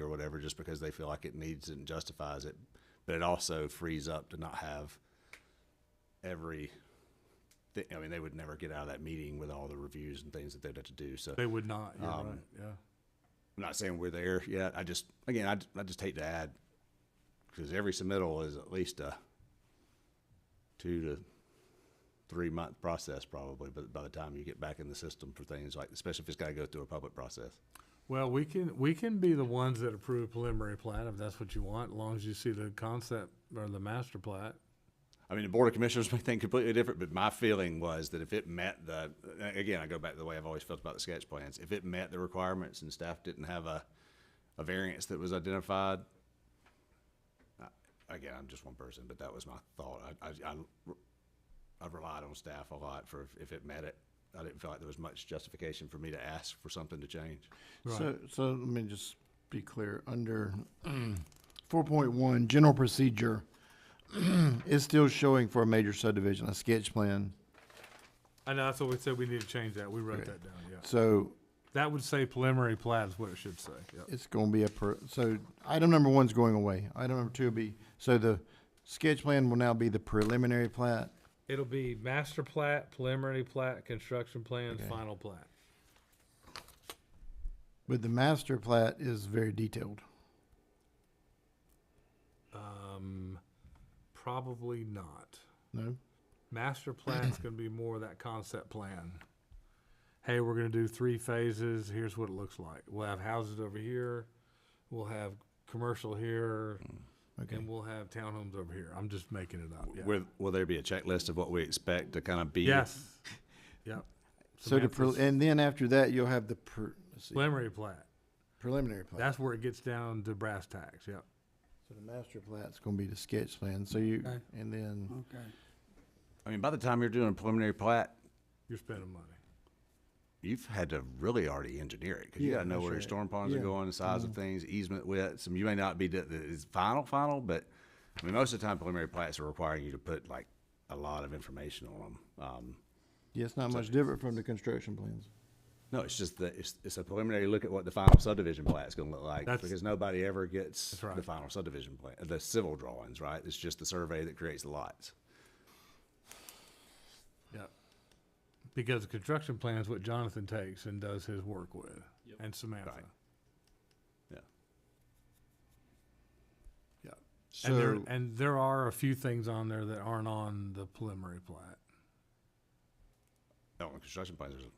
or whatever just because they feel like it needs it and justifies it. But it also frees up to not have every. Th- I mean, they would never get out of that meeting with all the reviews and things that they'd have to do. So They would not, you're Um, right, yeah. I'm not saying we're there yet. I just, again, I, j- I just hate to add, because every submittal is at least a two to three month process probably, but by the time you get back in the system for things like, especially if it's gotta go through a public process. Well, we can, we can be the ones that approve preliminary plat if that's what you want, as long as you see the concept or the master plat. I mean, the Board of Commissioners may think completely different, but my feeling was that if it met the, again, I go back to the way I've always felt about the sketch plans. If it met the requirements and staff didn't have a, a variance that was identified, I- again, I'm just one person, but that was my thought. I, I, I re- I've relied on staff a lot for if- if it met it. I didn't feel like there was much justification for me to ask for something to change. Right. So, so let me just be clear, under four point one, general procedure, it's still showing for a major subdivision, a sketch plan. I know, that's what we said, we need to change that, we wrote Okay. that down, yeah. So That would say preliminary plat is what it should say, yeah. it's gonna be a per, so item number one's going away. Item number two will be, so the sketch plan will now be the preliminary plat. It'll be master plat, preliminary plat, construction plans, Okay. final plat. But the master plat is very detailed. Um, probably not. No? Master plan's gonna be more of that concept plan. Hey, we're gonna do three phases, here's what it looks like. We'll have houses over here, we'll have commercial here, Mm, Okay. and we'll have townhomes over here. I'm just making it up, yeah. Will, will there be a checklist of what we expect to kind of be? Yes, yep. So the, pre- Samantha's and then after that, you'll have the pre, let's see, Preliminary plat, preliminary plat. that's where it gets down to brass tacks, yep. So the master plat's gonna be the sketch plan, so you, Okay. and then, Okay. I mean, by the time you're doing a preliminary plat, You're spending money. you've had to really already engineer it because you Yeah, got to know that's where your right. storm ponds are Yeah. going, the size Mm-hmm. of things, easement widths. And you may not be the, the it's final, final, but I mean, most of the time preliminary plats are requiring you to put like a lot of information on them. Um, yeah, it's not much different from the construction plans. no, it's just that it's, it's a preliminary look at what the final subdivision plat's going to look like That's- because nobody ever gets That's right. the final subdivision plan, the civil drawings, right? It's just the survey that creates the lots. Yeah. Because the construction plan is what Jonathan takes and does his work with, and Samantha. Right. Yeah. Yeah. And there, So, and there are a few things on there that aren't on the preliminary plat. No, on Oh, construction plans, there's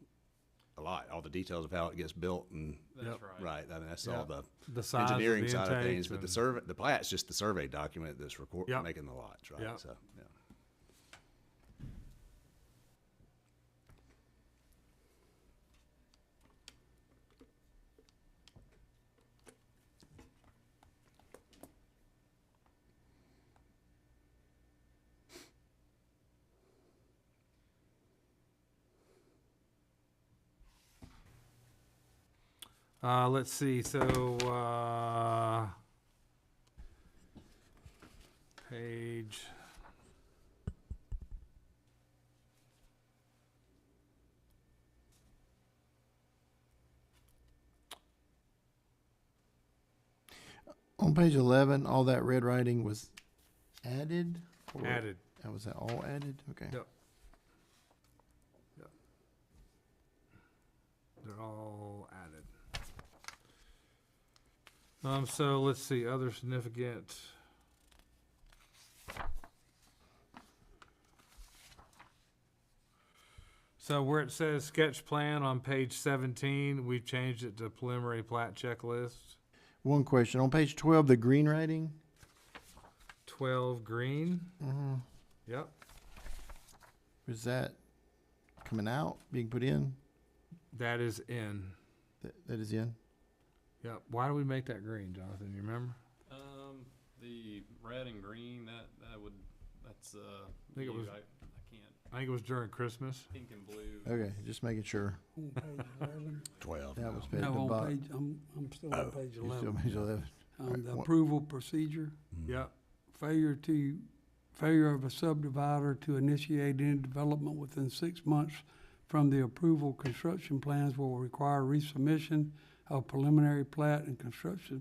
a lot, all the details of how it gets built and That's right. I mean, that's Yeah. all the The size of the engineering side of intakes things, but the and- survey, the plat's just the survey document that's record, Yep. making the lots, right? Yep. So, yeah. Uh, let's see, so, uh, page. on page eleven, all that red writing was added? or- Added. uh, Was that all added? Okay. Yep. Yep. They're all added. Um, so let's see, other significant. So where it says sketch plan on page seventeen, we've changed it to preliminary plat checklist, One question, on page twelve, the green writing, twelve green. Yep, mm-hmm, is that coming out, being put in? that is in. That, that is in? Yep, why do we make that green, Jonathan, you remember? Um, the red and green, that, that would, that's, uh, I think it you, was- I, I can't, I think it was during Christmas. pink and blue. Okay, just making sure. On page 11. Twelve That now. was page No, the on bottom. page, I'm, I'm still Oh, on page You're still on eleven. page eleven. Um, the what- approval procedure, Yep. failure to, failure of a subdivider to initiate any development within six months from the approval, construction plans will require resubmission of preliminary plat and construction